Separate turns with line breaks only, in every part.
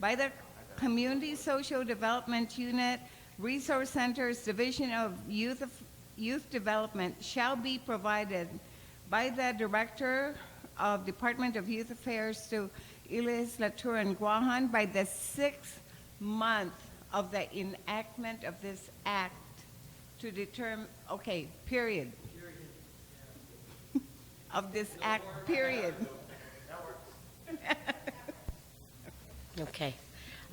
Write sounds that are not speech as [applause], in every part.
by the Community Social Development Unit, Resource Centers, Division of Youth, Youth Development shall be provided by the Director of Department of Youth Affairs to Elias Latour and Guahan by the sixth month of the enactment of this act to determine, okay, period. Of this act, period.
Okay.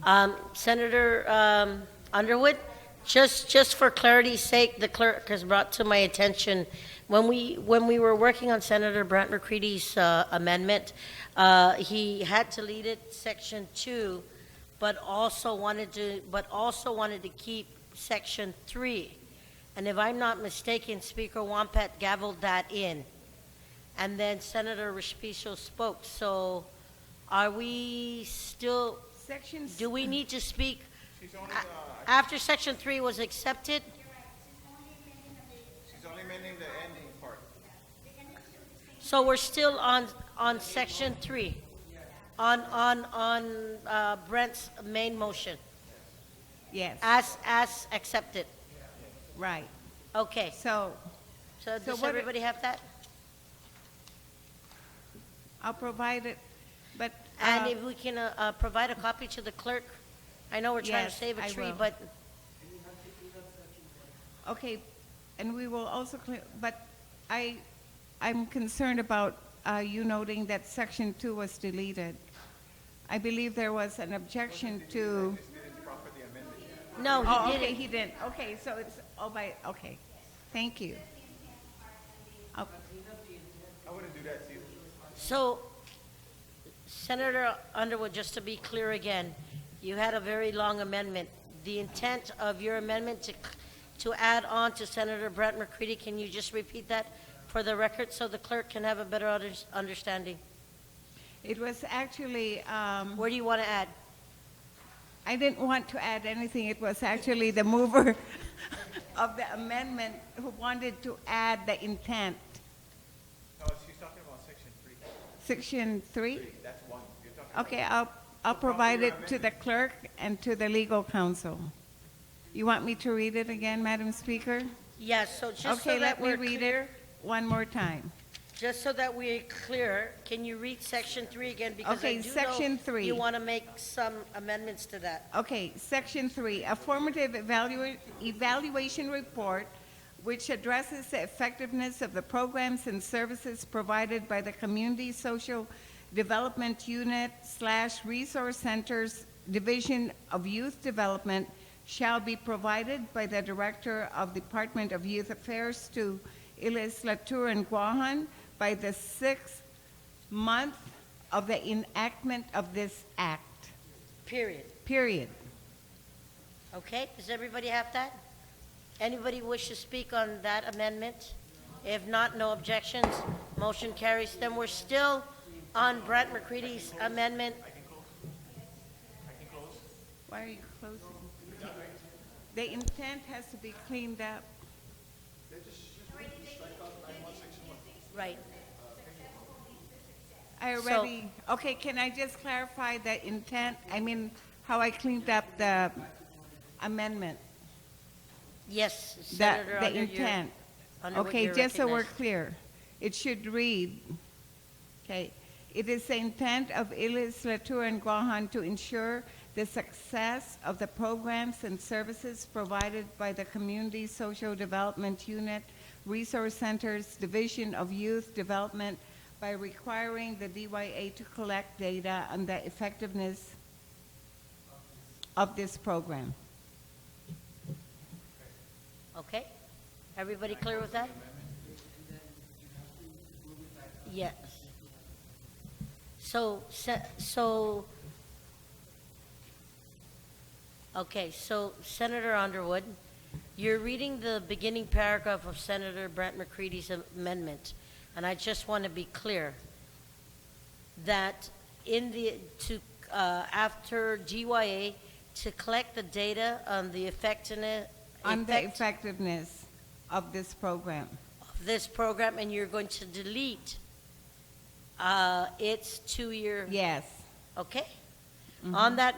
Um, Senator um, Underwood, just, just for clarity's sake, the clerk has brought to my attention, when we, when we were working on Senator Brant McCready's uh, amendment, uh, he had deleted section two, but also wanted to, but also wanted to keep section three. And if I'm not mistaken, Speaker Wampat gavelled that in. And then Senator Respicio spoke, so are we still,
Section.
do we need to speak a- after section three was accepted?
She's only meaning the ending part.
So we're still on, on section three? On, on, on uh, Brent's main motion,
Yes,
as, as accepted?
right.
Okay,
So
so
So
does
what-
everybody have that?
I'll provide it, but.
And
uh,
if we can uh, uh, provide a copy to the clerk? I know we're trying to
Yes,
save a
I
tree,
will.
but
Okay, and we will also, clear- but I, I'm concerned about uh, you noting that section two was deleted. I believe there was an objection to.
no,
Oh,
he
okay,
didn't.
he didn't. Okay, so it's, oh, by, okay. Thank you. Oh,
I wouldn't do that to you.
So, Senator Underwood, just to be clear again, you had a very long amendment. The intent of your amendment to, to add on to Senator Brett McCready, can you just repeat that for the record so the clerk can have a better under- understanding?
It was actually, um,
Where do you want to add?
I didn't want to add anything. It was actually the mover [laughs] of the amendment who wanted to add the intent.
No, Oh, she's talking about section three.
Section three?
Three, that's one. You're talking about.
Okay, I'll, I'll provide it to the clerk and to the legal counsel. You want me to read it again, Madam Speaker?
Yes, so just
Okay,
so
let
that
me
we're
read
clear,
it one more time.
just so that we're clear, can you read section three again? Because I
Okay,
do know
Section three.
You want to make some amendments to that.
Okay, section three, a formative evalu- evaluation report which addresses the effectiveness of the programs and services provided by the Community Social Development Unit slash Resource Centers Division of Youth Development shall be provided by the Director of Department of Youth Affairs to Ilis Latour and Guahan by the sixth month of the enactment of this act,
Period.
period.
Okay, does everybody have that? Anybody wish to speak on that amendment? If not, no objections, motion carries. Then we're still on Brett McCready's amendment.
Why are you closing? The intent has to be cleaned up.
Right.
I
So-
already, okay, can I just clarify the intent? I mean, how I cleaned up the amendment,
Yes,
the,
Senator
the
Underwood. you're-
intent.
Underwood,
Okay,
you're
just so we're
recognized.
clear, it should read, okay, it is the intent of Ilis Latour and Guahan to ensure the success of the programs and services provided by the Community Social Development Unit, Resource Centers, Division of Youth Development by requiring the DYA to collect data on the effectiveness of this program.
Okay, everybody clear with that? Yes. So, se- so, okay, so Senator Underwood, you're reading the beginning paragraph of Senator Brent McCready's amendment, and I just want to be clear that in the, to, uh, after GYA, to collect the data on the effectiveness,
On the
effect-
effectiveness of this program.
this program and you're going to delete uh, its two-year,
Yes.
okay? On that